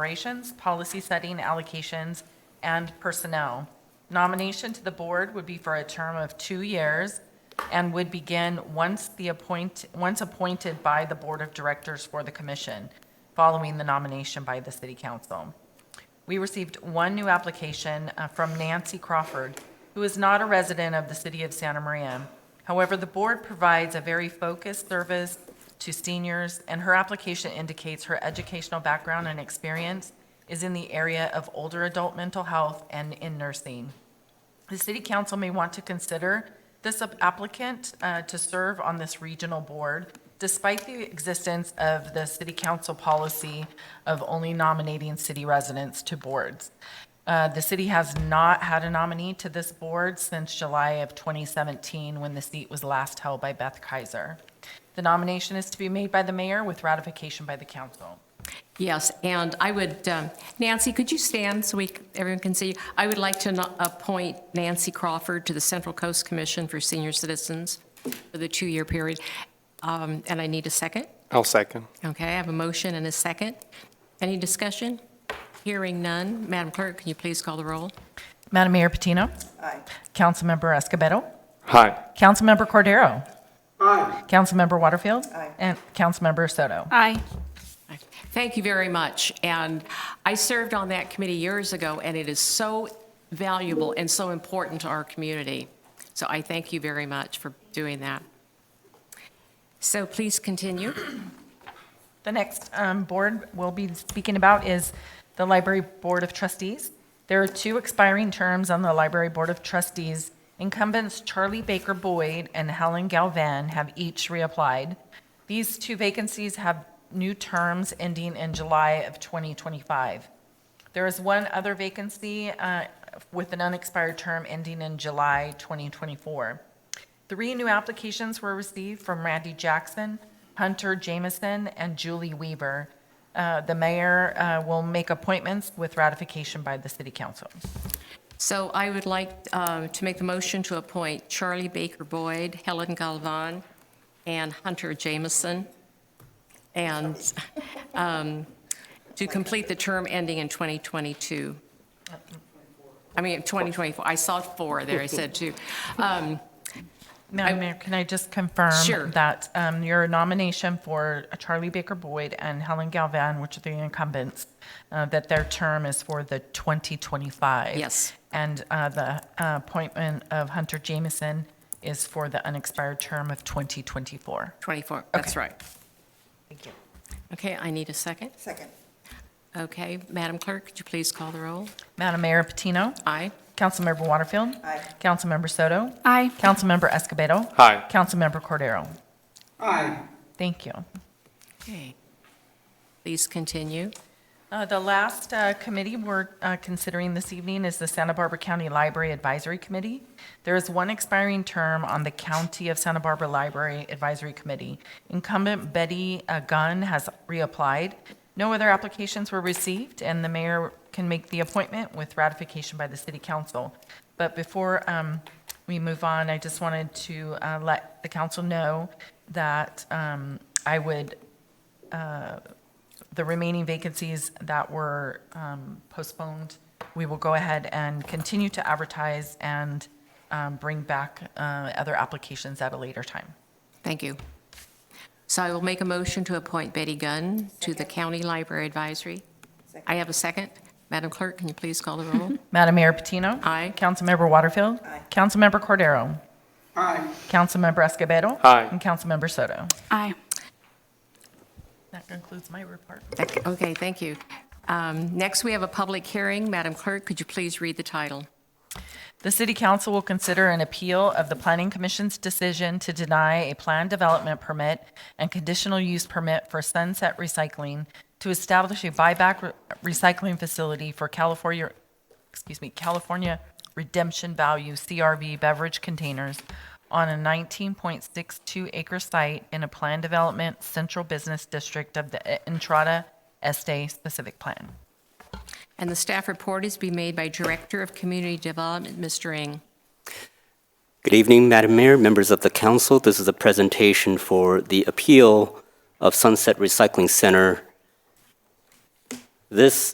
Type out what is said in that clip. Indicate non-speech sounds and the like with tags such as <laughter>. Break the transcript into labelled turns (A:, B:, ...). A: operations, policy setting, allocations, and personnel. Nomination to the board would be for a term of two years and would begin once the appoint, once appointed by the Board of Directors for the commission, following the nomination by the city council. We received one new application uh, from Nancy Crawford, who is not a resident of the city of Santa Maria. However, the board provides a very focused service to seniors, and her application indicates her educational background and experience is in the area of older adult mental health and in nursing. The city council may want to consider this applicant uh, to serve on this regional board despite the existence of the city council policy of only nominating city residents to boards. Uh, The city has not had a nominee to this board since July of 2017, when the seat was last held by Beth Kaiser. The nomination is to be made by the mayor with ratification by the council.
B: Yes, and I would, um, Nancy, could you stand so we, c- everyone can see? you? I would like to no- appoint Nancy Crawford to the Central Coast Commission for Senior Citizens for the two-year period. Um, And I need a second.
C: I'll second.
B: Okay, I have a motion and a second. Any discussion? Hearing none. Madam Clerk, can you please call the roll?
A: Madam Mayor Patino?
D: Aye.
A: Councilmember Escobedo?
C: Hi.
A: Councilmember Cordero? Aye. Councilmember Waterfield?
D: Aye.
A: And Councilmember Soto?
E: Aye.
B: Thank you very much. And I served on that committee years ago, and it is so valuable and so important to our community. So I thank you very much for doing that. So please continue.
A: The next um, board we'll be speaking about is the Library Board of Trustees. There are two expiring terms on the Library Board of Trustees. Incumbents Charlie Baker Boyd and Helen Galvan have each reapplied. These two vacancies have new terms ending in July of 2025. There is one other vacancy uh, with an unexpired term ending in July 2024. Three new applications were received from Randy Jackson, Hunter Jameson, and Julie Weaver. Uh, The mayor uh, will make appointments with ratification by the city council.
B: So I would like uh, to make the motion to appoint Charlie Baker Boyd, Helen Galvan, and Hunter Jameson, and <laughs> um, to complete the term ending in 2022. I mean, 2024. I saw four there, I said two. Um,
A: Madam Mayor, can I just confirm?
B: Sure.
A: That um, your nomination for Charlie Baker Boyd and Helen Galvan, which are the incumbents, uh, that their term is for the 2025?
B: Yes.
A: And uh, the uh, appointment of Hunter Jameson is for the unexpired term of 2024?
B: 24, that's right.
A: Thank you.
B: Okay, I need a second.
D: Second.
B: Okay, Madam Clerk, could you please call the roll?
A: Madam Mayor Patino?
B: Aye.
A: Councilmember Waterfield?
D: Aye.
A: Councilmember Soto?
E: Aye.
A: Councilmember Escobedo?
C: Aye.
A: Councilmember Cordero? Aye. Thank you.
B: Okay. Please continue.
A: Uh, The last uh, committee we're uh, considering this evening is the Santa Barbara County Library Advisory Committee. There is one expiring term on the County of Santa Barbara Library Advisory Committee. Incumbent Betty uh, Gunn has reapplied. No other applications were received, and the mayor can make the appointment with ratification by the city council. But before um, we move on, I just wanted to uh, let the council know that um, I would the remaining vacancies that were um, postponed, we will go ahead and continue to advertise and um, bring back uh, other applications at a later time.
B: Thank you. So I will make a motion to appoint Betty Gunn to the County Library Advisory.
D: Second.
B: I have a second. Madam Clerk, can you please call the roll?
A: Madam Mayor Patino?
B: Aye.
A: Councilmember Waterfield?
D: Aye.
A: Councilmember Cordero? Aye. Councilmember Escobedo?
C: Aye.
A: And Councilmember Soto?
E: Aye.
A: That concludes my report.
B: Okay, thank you. Um, Next, we have a public hearing. Madam Clerk, could you please read the title?
A: The city council will consider an appeal of the planning commission's decision to deny a planned development permit and conditional use permit for Sunset Recycling to establish a buyback re- recycling facility for California, excuse me, California Redemption Value CRV beverage containers on a 19.62 acre site in a planned development central business district of the E-, Entrada Este specific plan.
B: And the staff report is to be made by Director of Community Development, Mr. Ng.
F: Good evening, Madam Mayor, members of the council. This is a presentation for the appeal of Sunset Recycling Center This